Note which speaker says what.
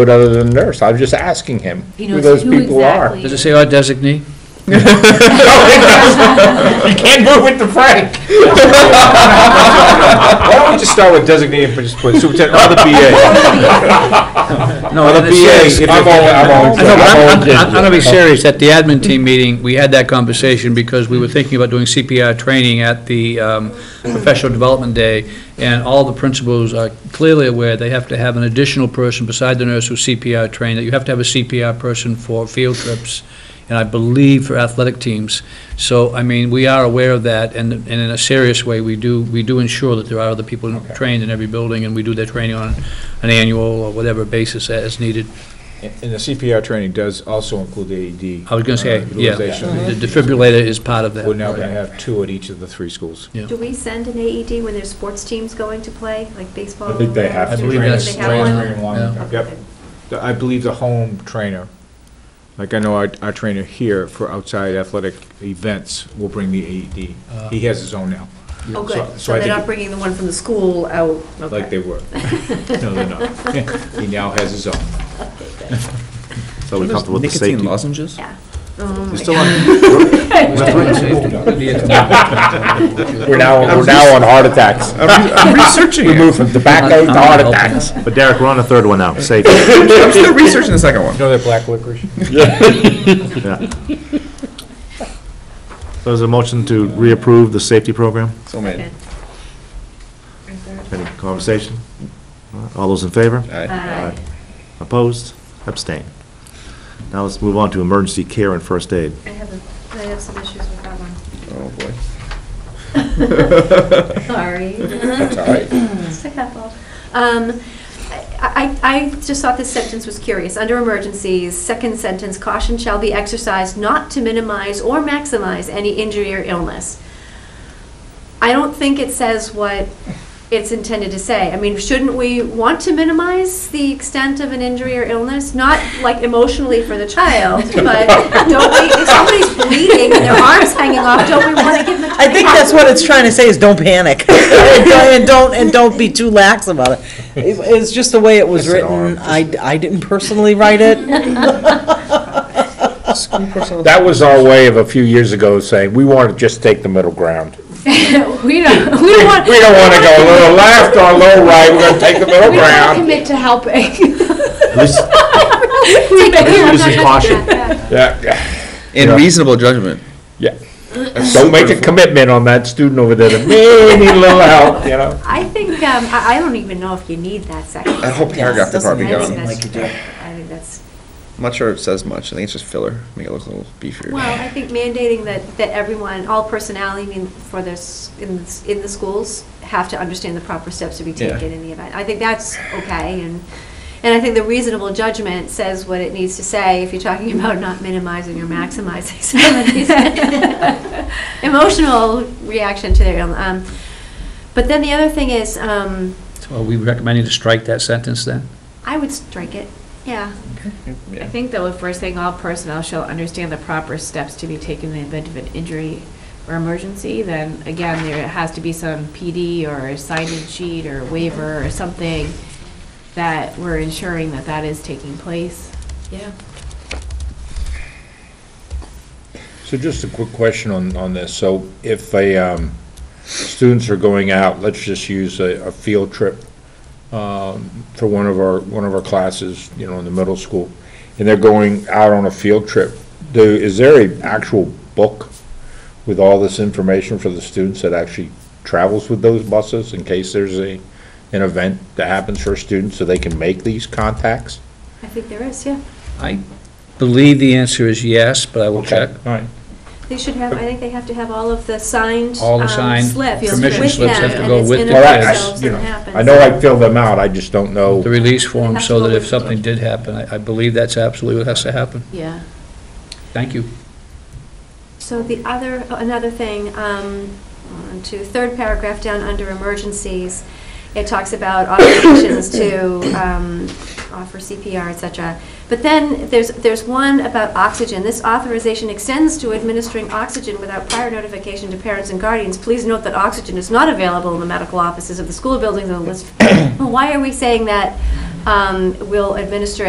Speaker 1: it other than nurse. I'm just asking him
Speaker 2: He
Speaker 1: who
Speaker 2: knows
Speaker 1: those
Speaker 2: who
Speaker 1: people are.
Speaker 2: exactly-
Speaker 3: Does it say our designee?
Speaker 1: You can't move with the Frank. Why don't we just start with designated for just put superintendent or the BA?
Speaker 3: No,
Speaker 1: the
Speaker 3: it says-
Speaker 1: BA, if you're- I'm all-
Speaker 3: I know, but
Speaker 1: I'm all
Speaker 3: I'm, I'm-
Speaker 1: digital.
Speaker 3: I'm gonna be serious, at the admin team meeting, we had that conversation because we were thinking about doing CPR training at the um, Professional Development Day, and all the principals are clearly aware they have to have an additional person beside the nurse who's CPR trained, that you have to have a CPR person for field trips, and I believe for athletic teams. So, I mean, we are aware of that, and, and in a serious way, we do, we do ensure that there are other people trained in every building, and we do their training on an annual or whatever basis as needed.
Speaker 4: And the CPR training does also include the AED.
Speaker 3: I was going to say,
Speaker 4: uh,
Speaker 3: yeah,
Speaker 4: utilization.
Speaker 3: the defibrillator is part of that.
Speaker 4: We're now going to have two at each of the three schools.
Speaker 3: Yeah.
Speaker 5: Do we send an AED when there's sports teams going to play, like baseball?
Speaker 1: I think they have
Speaker 3: I
Speaker 1: to.
Speaker 3: believe
Speaker 5: They
Speaker 3: that's-
Speaker 5: have one?
Speaker 3: Yeah.
Speaker 4: Yep. The- I believe the home trainer, like I know our, our trainer here for outside athletic events will bring the AED.
Speaker 3: Uh.
Speaker 4: He has his own now,
Speaker 5: Oh,
Speaker 4: So-
Speaker 5: good,
Speaker 4: so
Speaker 5: so
Speaker 4: I
Speaker 5: they're
Speaker 4: think-
Speaker 5: not bringing the one from the school out,
Speaker 4: like they
Speaker 5: okay.
Speaker 4: were. No, they're not. He now has his own.
Speaker 6: So we comfortable with the safety?
Speaker 7: lozenges?
Speaker 5: Yeah. Oh, my
Speaker 6: It's still on-
Speaker 1: We're now, we're now on heart attacks.
Speaker 6: I'm researching
Speaker 1: We moved from tobacco to heart attacks.
Speaker 6: But Derek, we're on the third one now, safety.
Speaker 7: I'm still researching the second one.
Speaker 4: You know that black licorice?
Speaker 6: Yeah. So is there a motion to reapprove the safety program?
Speaker 7: So made.
Speaker 5: Okay.
Speaker 6: Any conversation? All those in favor?
Speaker 5: Aye.
Speaker 6: Opposed? Abstain. Now let's move on to emergency care and first aid.
Speaker 5: I have, a- I have some issues with that one.
Speaker 7: Oh, boy.
Speaker 5: Sorry.
Speaker 1: That's all right.
Speaker 5: It's a couple. Um, I, I I just thought this sentence was curious. Under emergencies, second sentence, caution shall be exercised not to minimize or maximize any injury or illness. I don't think it says what it's intended to say. I mean, shouldn't we want to minimize the extent of an injury or illness? Not like emotionally for the child, but don't we, if somebody's bleeding and their arm's hanging off, don't we want to give them a
Speaker 8: I think that's what it's trying to say, is don't panic, and don't, and don't be too lax about it. It- It's just the way it was written, I, I didn't personally write it,
Speaker 1: That was our way of a few years ago saying, we want to just take the middle ground.
Speaker 2: We don't, we don't want.
Speaker 1: We don't want to go a little left or a little right, we're going to take the middle
Speaker 2: We don't want to
Speaker 1: ground.
Speaker 2: commit to helping.
Speaker 6: At least,
Speaker 5: This
Speaker 6: is caution.
Speaker 1: Yeah, yeah,
Speaker 7: In
Speaker 1: Yeah.
Speaker 7: reasonable judgment.
Speaker 1: yeah. Don't make a commitment on that student over there that may need a little help, you know?
Speaker 5: I think, um, I, I don't even know if you need that second.
Speaker 7: That whole paragraph could
Speaker 8: doesn't
Speaker 7: probably
Speaker 8: matter.
Speaker 7: go.
Speaker 5: I think
Speaker 8: Doesn't
Speaker 7: on.
Speaker 8: seem
Speaker 5: that's-
Speaker 8: like you do.
Speaker 5: I think that's,
Speaker 7: I'm not sure it says much. I think it's just filler. Make it look a little beefier.
Speaker 5: well, I think mandating that, that everyone, all personnel, I mean, for this, in, s- in the schools, have to understand the proper steps to be
Speaker 7: Yeah.
Speaker 5: taken in the event. I think that's okay, and, and I think the reasonable judgment says what it needs to say if you're talking about not minimizing or maximizing somebody's emotional reaction to their, ill- um, but then the other thing is, um,
Speaker 3: So Are we recommending to strike that sentence then?
Speaker 5: I would strike it, yeah.
Speaker 7: Yeah.
Speaker 2: I think though, if we're saying all personnel shall understand the proper steps to be taken in the event of an injury or emergency, then again, there has to be some PD or sign-in sheet or waiver or something that we're ensuring that that is taking place.
Speaker 5: Yeah.
Speaker 1: So just a quick question on, on this. So if a, um, students are going out, let's just use a, a field trip, um, for one of our, one of our classes, you know, in the middle school, and they're going out on a field trip, do, is there a actual book with all this information for the students that actually travels with those buses in case there's a, an event that happens for students so they can make these contacts?
Speaker 5: I think there is, yeah.
Speaker 3: I believe the answer is yes, but I will check.
Speaker 1: All right.
Speaker 5: They should have, I think they have to have all of the signed
Speaker 3: All the
Speaker 5: um,
Speaker 3: signed
Speaker 5: slips with them.
Speaker 3: permission slips have to
Speaker 5: and
Speaker 3: go
Speaker 5: it's
Speaker 3: with
Speaker 5: in
Speaker 3: the
Speaker 5: and of
Speaker 3: kids.
Speaker 5: themselves
Speaker 1: Well, I- I- you
Speaker 5: and
Speaker 1: know,
Speaker 5: happens.
Speaker 1: I know I fill them out, I just don't know.
Speaker 3: The release form, so that if something did happen, I, I believe that's absolutely what has to happen.
Speaker 2: Yeah.
Speaker 3: Thank you.
Speaker 5: So the other, another thing, um, on to third paragraph down under emergencies, it talks about authorizations to um, offer CPR, et cetera. But then there's, there's one about oxygen. This authorization extends to administering oxygen without prior notification to parents and guardians. Please note that oxygen is not available in the medical offices of the school buildings on the list. Well, Why are we saying that um, we'll administer